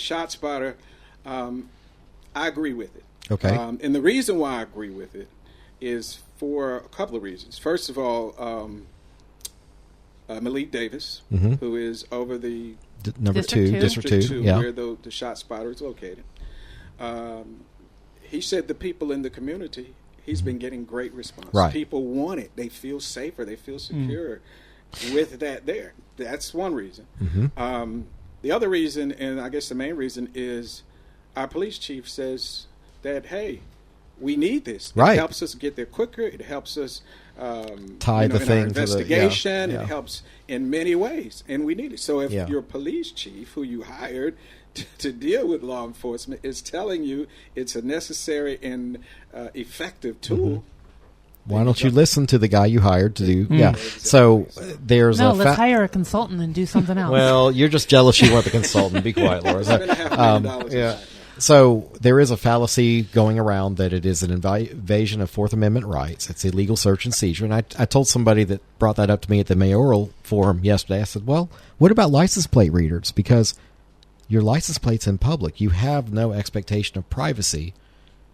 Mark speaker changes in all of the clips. Speaker 1: shot spotter, um, I agree with it.
Speaker 2: Okay.
Speaker 1: Um, and the reason why I agree with it is for a couple of reasons. First of all, um, uh, Malik Davis, who is over the
Speaker 2: D- number
Speaker 3: District
Speaker 2: two,
Speaker 3: two.
Speaker 2: district two.
Speaker 1: district two,
Speaker 2: yeah.
Speaker 1: where the, the shot spotter is located. Um, he said the people in the community, he's been getting great response.
Speaker 2: Right.
Speaker 1: People want it. They feel safer. They feel secure with that there. That's one reason.
Speaker 2: Mm-hmm.
Speaker 1: Um, the other reason, and I guess the main reason, is our police chief says that, hey, we need this.
Speaker 2: Right.
Speaker 1: It helps us get there quicker. It helps us um,
Speaker 2: Tie the
Speaker 1: in our
Speaker 2: thing to the- yeah,
Speaker 1: investigation.
Speaker 2: yeah.
Speaker 1: It helps in many ways, and we need it. So if
Speaker 2: Yeah.
Speaker 1: your police chief, who you hired to, to deal with law enforcement, is telling you it's a necessary and uh, effective
Speaker 2: Mm-hmm.
Speaker 1: tool,
Speaker 2: Why don't you listen to the guy you hired to do? Yeah. So uh, there's
Speaker 3: Mm. No,
Speaker 2: a
Speaker 3: let's
Speaker 2: fa-
Speaker 3: hire a consultant and do something else.
Speaker 2: Well, you're just jealous you weren't the consultant. Be quiet, Laura.
Speaker 1: seven and a half million dollars.
Speaker 2: Um, yeah.
Speaker 1: aside.
Speaker 2: So there is a fallacy going around that it is an invi- invasion of Fourth Amendment rights. It's illegal search and seizure. And I, I told somebody that brought that up to me at the mayoral forum yesterday. I said, "Well, what about license plate readers? Because your license plate's in public. You have no expectation of privacy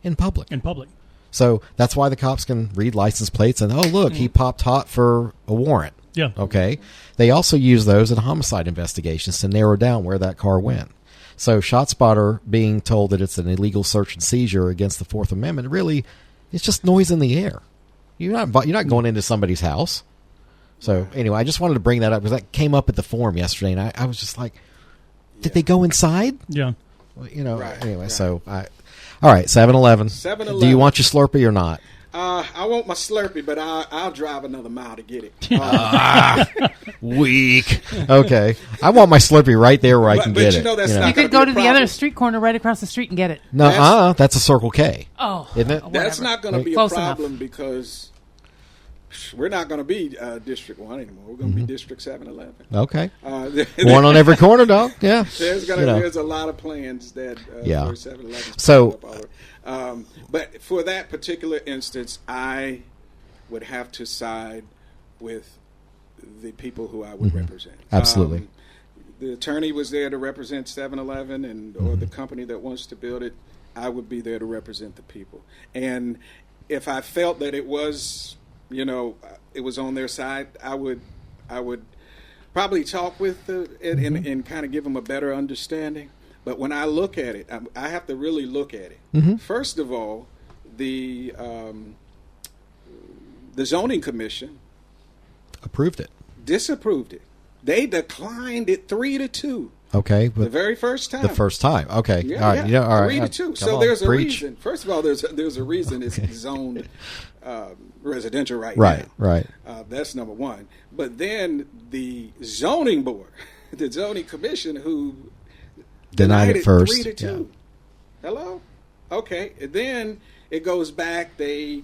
Speaker 2: in public.
Speaker 4: in public.
Speaker 2: So that's why the cops can read license plates and oh look, he popped hot for a warrant.
Speaker 4: Yeah.
Speaker 2: Okay. They also use those in homicide investigations to narrow down where that car went. So ShotSpotter being told that it's an illegal search and seizure against the Fourth Amendment really, it's just noise in the air. You're not invi- you're not going into somebody's house. So anyway, I just wanted to bring that up because that came up at the forum yesterday, and I, I was just like, did they go inside?
Speaker 4: Yeah.
Speaker 2: You know.
Speaker 1: Right,
Speaker 2: anyway,
Speaker 1: right.
Speaker 2: so I. All right, 7-Eleven.
Speaker 1: 7-Eleven.
Speaker 2: Do you want your Slurpee or not?
Speaker 1: Uh, I want my Slurpee, but I, I'll drive another mile to get it. Uh,
Speaker 2: Weak. okay. I want my Slurpee right there where I
Speaker 1: But-
Speaker 2: can
Speaker 1: but
Speaker 2: get
Speaker 1: you
Speaker 2: it.
Speaker 1: know that's
Speaker 3: you
Speaker 1: not-
Speaker 3: could
Speaker 1: gonna
Speaker 3: go
Speaker 1: be
Speaker 3: to
Speaker 1: a
Speaker 3: the other
Speaker 1: problem.
Speaker 3: street corner right across the street and get it.
Speaker 2: no,
Speaker 1: that's-
Speaker 2: uh, that's a Circle K,
Speaker 3: Oh,
Speaker 2: isn't it?
Speaker 1: that's not going to be a
Speaker 3: Close enough.
Speaker 1: problem because we're not going to be uh, District 1 anymore. We're going to be District 711.
Speaker 2: Okay.
Speaker 1: Uh,
Speaker 2: Mm-hmm. One on every corner, dog. Yeah.
Speaker 1: There's gonna
Speaker 2: You know.
Speaker 1: there's a lot of plans that uh,
Speaker 2: Yeah.
Speaker 1: for 7-Eleven.
Speaker 2: So-
Speaker 1: up all over. um, but for that particular instance, I would have to side with the people who I would represent.
Speaker 2: Mm-hmm. Absolutely.
Speaker 1: Um, the attorney was there to represent 7-Eleven and or the company that wants to build it. I would be there to represent the people. And if I felt that it was, you know, uh, it was on their side, I would, I would probably talk with the, and, and, and kind of give them a better understanding. But when I look at it, I, I have to really look at it. First of all, the um, the zoning commission
Speaker 2: Approved it.
Speaker 1: disapproved it. They declined it three to two
Speaker 2: Okay.
Speaker 1: the
Speaker 2: But
Speaker 1: very first time.
Speaker 2: the first time. Okay.
Speaker 1: Yeah,
Speaker 2: all right.
Speaker 1: yeah.
Speaker 2: You know, all right.
Speaker 1: Three
Speaker 2: Uh,
Speaker 1: to two.
Speaker 2: come
Speaker 1: So
Speaker 2: on,
Speaker 1: there's a
Speaker 2: preach.
Speaker 1: reason. First of all, there's there's a reason it's zoned um, residential right,
Speaker 2: Right.
Speaker 1: now.
Speaker 2: Right.
Speaker 1: Uh, that's number one. But then the zoning board, the zoning commission, who
Speaker 2: Denied it first.
Speaker 1: three to
Speaker 2: Yeah.
Speaker 1: two. Hello. Okay. And then it goes back. They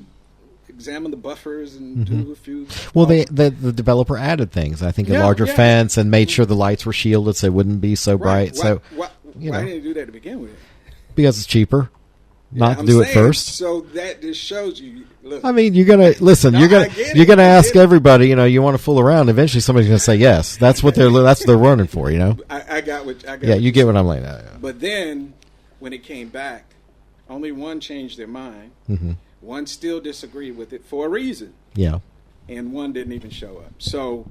Speaker 1: examine the buffers and do a few.
Speaker 2: Mm-hmm. Well, they, the the developer added things. I think a
Speaker 1: Yeah,
Speaker 2: larger
Speaker 1: yeah.
Speaker 2: fence and made sure the lights were shielded so it wouldn't be so bright.
Speaker 1: Why,
Speaker 2: So
Speaker 1: why,
Speaker 2: you
Speaker 1: why
Speaker 2: know.
Speaker 1: didn't they do that to begin with?
Speaker 2: because it's cheaper, not
Speaker 1: I'm
Speaker 2: to do it
Speaker 1: saying,
Speaker 2: first.
Speaker 1: So that just shows you. Look,
Speaker 2: I mean, you're gonna listen.
Speaker 1: No,
Speaker 2: you're gonna
Speaker 1: I get it.
Speaker 2: you're gonna
Speaker 1: I
Speaker 2: ask
Speaker 1: get it.
Speaker 2: everybody. You know, you want to fool around. Eventually, somebody's gonna say yes. That's what they're that's what they're running for. You know.
Speaker 1: I, I got what I got.
Speaker 2: Yeah,
Speaker 1: what
Speaker 2: you get what I'm like. uh,
Speaker 1: But then, when it came back, only one changed their mind.
Speaker 2: Mm-hmm.
Speaker 1: One still disagreed with it for a reason,
Speaker 2: Yeah,
Speaker 1: and one didn't even show up. So,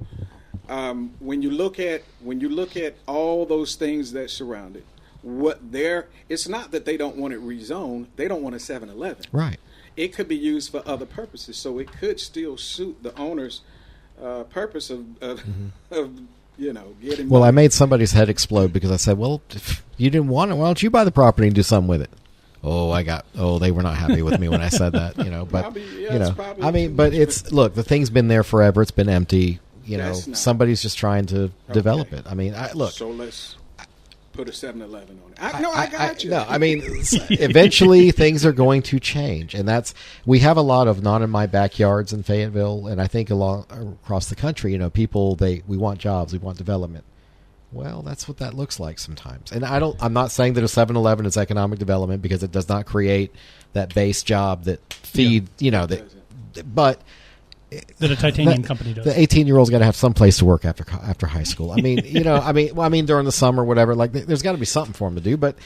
Speaker 1: um, when you look at when you look at all those things that surround it, what they're it's not that they don't want it rezoned; they don't want a 7-Eleven.
Speaker 2: right.
Speaker 1: It could be used for other purposes, so it could still suit the owner's uh, purpose of of, of you know getting.
Speaker 2: Mm-hmm. Well, I
Speaker 1: money.
Speaker 2: made somebody's head explode because I said, "Well, if you didn't want it. Why don't you buy the property and do something with it?" Oh, I got. Oh, they were not happy with me when I said that. You know, but
Speaker 1: Probably- yeah,
Speaker 2: you
Speaker 1: it's
Speaker 2: know,
Speaker 1: probably
Speaker 2: I mean,
Speaker 1: too
Speaker 2: but
Speaker 1: much,
Speaker 2: it's look. The thing's been there forever. It's been empty. You know,
Speaker 1: That's not-
Speaker 2: somebody's just trying to develop it. I mean, I, look.
Speaker 1: So let's put a 7 Eleven on it. I, no, I, got you.
Speaker 2: No, I mean, s- eventually things are going to change, and that's we have a lot of not in my backyards in Fayetteville, and I think along across the country, you know, people they we want jobs, we want development. Well, that's what that looks like sometimes, and I don't. I'm not saying that a 7-Eleven is economic development because it does not create that base job that feed, you know, that. But
Speaker 4: that a titanium
Speaker 2: That-
Speaker 4: company does.
Speaker 2: The 18 year old's got to have some place to work after co- after high school. I mean, you know, I mean, well, I mean during the summer, whatever. Like, th- there's got to be something for him to do. But